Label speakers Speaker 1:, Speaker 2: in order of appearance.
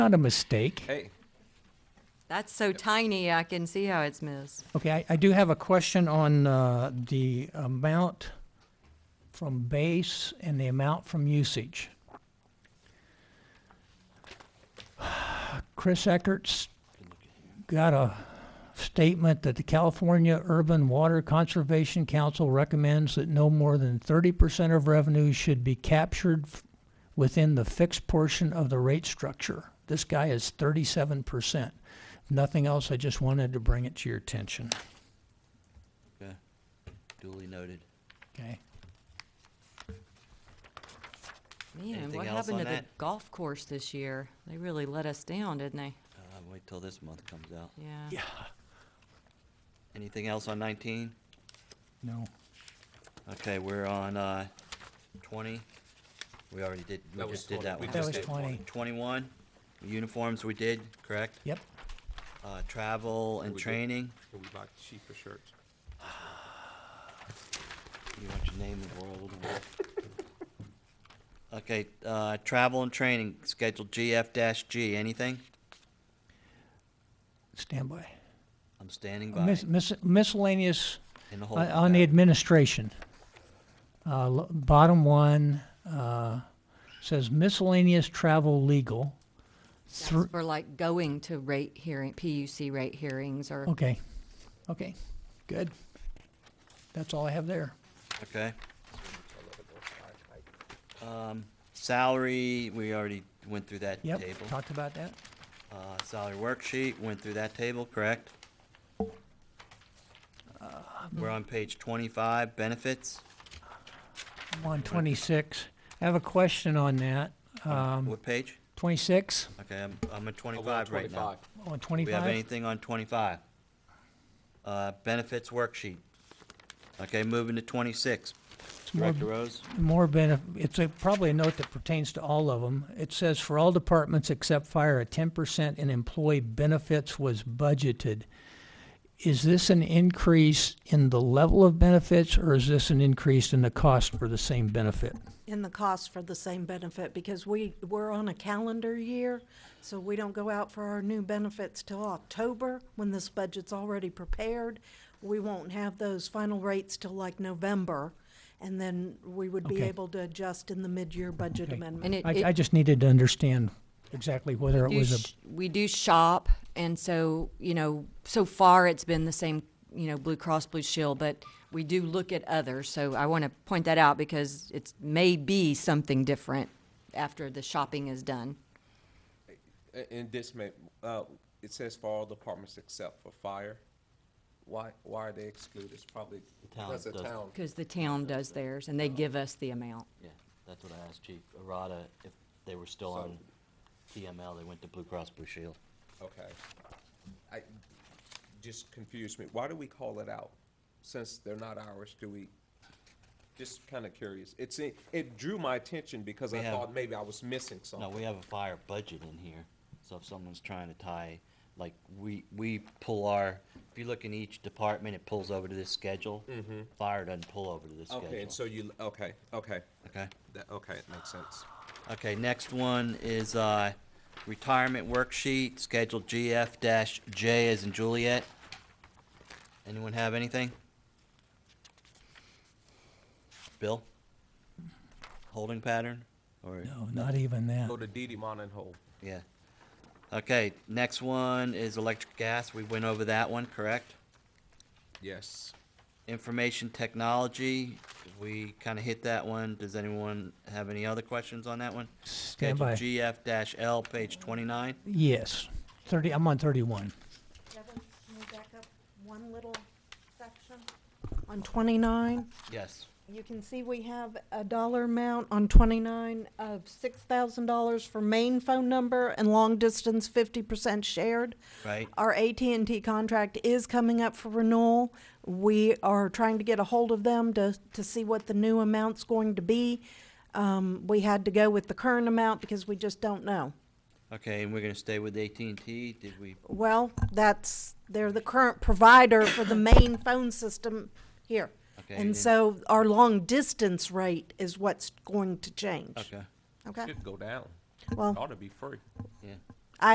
Speaker 1: not a mistake.
Speaker 2: Hey,
Speaker 3: That's so tiny, I can see how it's missed.
Speaker 1: Okay, I, I do have a question on, uh, the amount from base and the amount from usage. Chris Eckert's got a statement that the California Urban Water Conservation Council recommends that no more than thirty percent of revenue should be captured f- within the fixed portion of the rate structure. This guy is thirty-seven percent. Nothing else, I just wanted to bring it to your attention,
Speaker 4: Okay. Duly noted.
Speaker 1: okay?
Speaker 3: Man,
Speaker 4: Anything
Speaker 3: what
Speaker 4: else
Speaker 3: happened
Speaker 4: on
Speaker 3: to the
Speaker 4: that?
Speaker 3: golf course this year? They really let us down, didn't they?
Speaker 4: Uh, wait till this month comes out.
Speaker 3: Yeah.
Speaker 4: Anything else on nineteen?
Speaker 1: No.
Speaker 4: Okay, we're on, uh, twenty. We already did, we
Speaker 2: That was
Speaker 4: just did
Speaker 2: 20.
Speaker 4: that
Speaker 2: We
Speaker 4: one.
Speaker 1: That
Speaker 2: just
Speaker 1: was
Speaker 2: did
Speaker 1: twenty,
Speaker 4: Twenty-one, uniforms we did, correct?
Speaker 1: yep.
Speaker 4: Uh, travel and
Speaker 2: We did.
Speaker 4: training,
Speaker 2: we bought cheaper shirts.
Speaker 4: you want your name in the world. Okay, uh, travel and training, schedule GF dash G, anything?
Speaker 1: Standby.
Speaker 4: I'm standing by
Speaker 1: Mis- mis- Miscellaneous
Speaker 4: in the hole.
Speaker 1: on- on the administration. Uh, l- Bottom one uh, says miscellaneous travel legal.
Speaker 3: That's
Speaker 1: Thr-
Speaker 3: for like going to rate hearing, PUC rate hearings or,
Speaker 1: Okay, okay, good. That's all I have there.
Speaker 4: Okay. Um, salary, we already went through that table.
Speaker 1: Yep, talked about that.
Speaker 4: Uh, salary worksheet, went through that table, correct?
Speaker 1: Um,
Speaker 4: We're on page twenty-five, benefits.
Speaker 1: I'm on 26. I have a question on that. Um,
Speaker 4: What page?
Speaker 1: 26,
Speaker 4: Okay, I'm, I'm at
Speaker 2: Oh, we're on
Speaker 4: twenty-five right now.
Speaker 2: 25.
Speaker 1: on
Speaker 4: Do we have
Speaker 1: 25?
Speaker 4: anything on twenty-five? Uh, benefits worksheet. Okay, moving to twenty-six.
Speaker 1: more-
Speaker 4: Director Rose?
Speaker 1: More benefit, it's a, probably a note that pertains to all of them. It says for all departments except fire, a ten percent in employee benefits was budgeted. Is this an increase in the level of benefits or is this an increase in the cost for the same benefit?
Speaker 5: in the cost for the same benefit because we, we're on a calendar year, so we don't go out for our new benefits till October, when this budget's already prepared. We won't have those final rates till like November, and then we would be
Speaker 1: Okay.
Speaker 5: able to adjust in the mid-year budget
Speaker 1: Okay.
Speaker 3: and
Speaker 5: amendment.
Speaker 3: it,
Speaker 1: I,
Speaker 3: it
Speaker 1: I just needed to understand exactly whether it
Speaker 3: do
Speaker 1: was
Speaker 3: sh- we do shop, and so, you know, so far it's been the same, you know, Blue Cross Blue Shield, but we do look at others, so I want to point that out because it's may be something different after the shopping is done.
Speaker 2: A- And this may, uh, it says for all departments except for fire. Why, why are they excluded? It's probably
Speaker 4: town
Speaker 2: because the
Speaker 4: doesn't.
Speaker 2: town.
Speaker 3: Because the town does theirs, and they give us the amount.
Speaker 4: Yeah, that's what I asked Chief Arada, if they were still
Speaker 2: on
Speaker 4: TML, they went to Blue Cross Blue Shield.
Speaker 2: Okay. I, just confused me. Why do we call it out? Since they're not ours, do we? Just kind of curious. It's, a- it drew my attention because
Speaker 4: We
Speaker 2: I
Speaker 4: have-
Speaker 2: thought maybe I was missing
Speaker 4: No,
Speaker 2: something.
Speaker 4: we have a fire budget in here, so if someone's trying to tie, like, we, we pull our, if you look in each department, it pulls over to this schedule. Fire doesn't pull over to this
Speaker 2: Mm-hmm. Okay, and so
Speaker 4: schedule.
Speaker 2: you, okay, okay.
Speaker 4: Okay,
Speaker 2: That, okay, it makes sense.
Speaker 4: okay, next one is, uh, retirement worksheet, schedule GF dash J as in Juliet. Anyone have anything? Bill? Holding pattern, or?
Speaker 1: a, no, not even that.
Speaker 2: Go to DD Mononville.
Speaker 4: Yeah. Okay, next one is electric gas. We went over that one, correct?
Speaker 2: Yes.
Speaker 4: Information technology, we kind of hit that one. Does anyone have any other questions on that one?
Speaker 1: Stand by.
Speaker 4: GF dash L, page twenty-nine.
Speaker 1: Yes, 30, I'm on 31.
Speaker 5: Kevin, can we back up one little section? On twenty-nine?
Speaker 4: Yes.
Speaker 5: You can see we have a dollar amount on twenty-nine of six thousand dollars for main phone number and long distance fifty percent shared.
Speaker 4: Right.
Speaker 5: Our AT&T contract is coming up for renewal. We are trying to get a hold of them to, to see what the new amount's going to be. Um, we had to go with the current amount because we just don't know.
Speaker 4: Okay, and we're gonna stay with AT&T. Did we,
Speaker 5: Well, that's, they're the current provider for the main phone system here.
Speaker 4: Okay, then-
Speaker 5: And so our long distance rate is what's going to change.
Speaker 4: okay,
Speaker 5: Okay,
Speaker 2: Should go down.
Speaker 5: well,
Speaker 2: Ought to be free.
Speaker 4: yeah.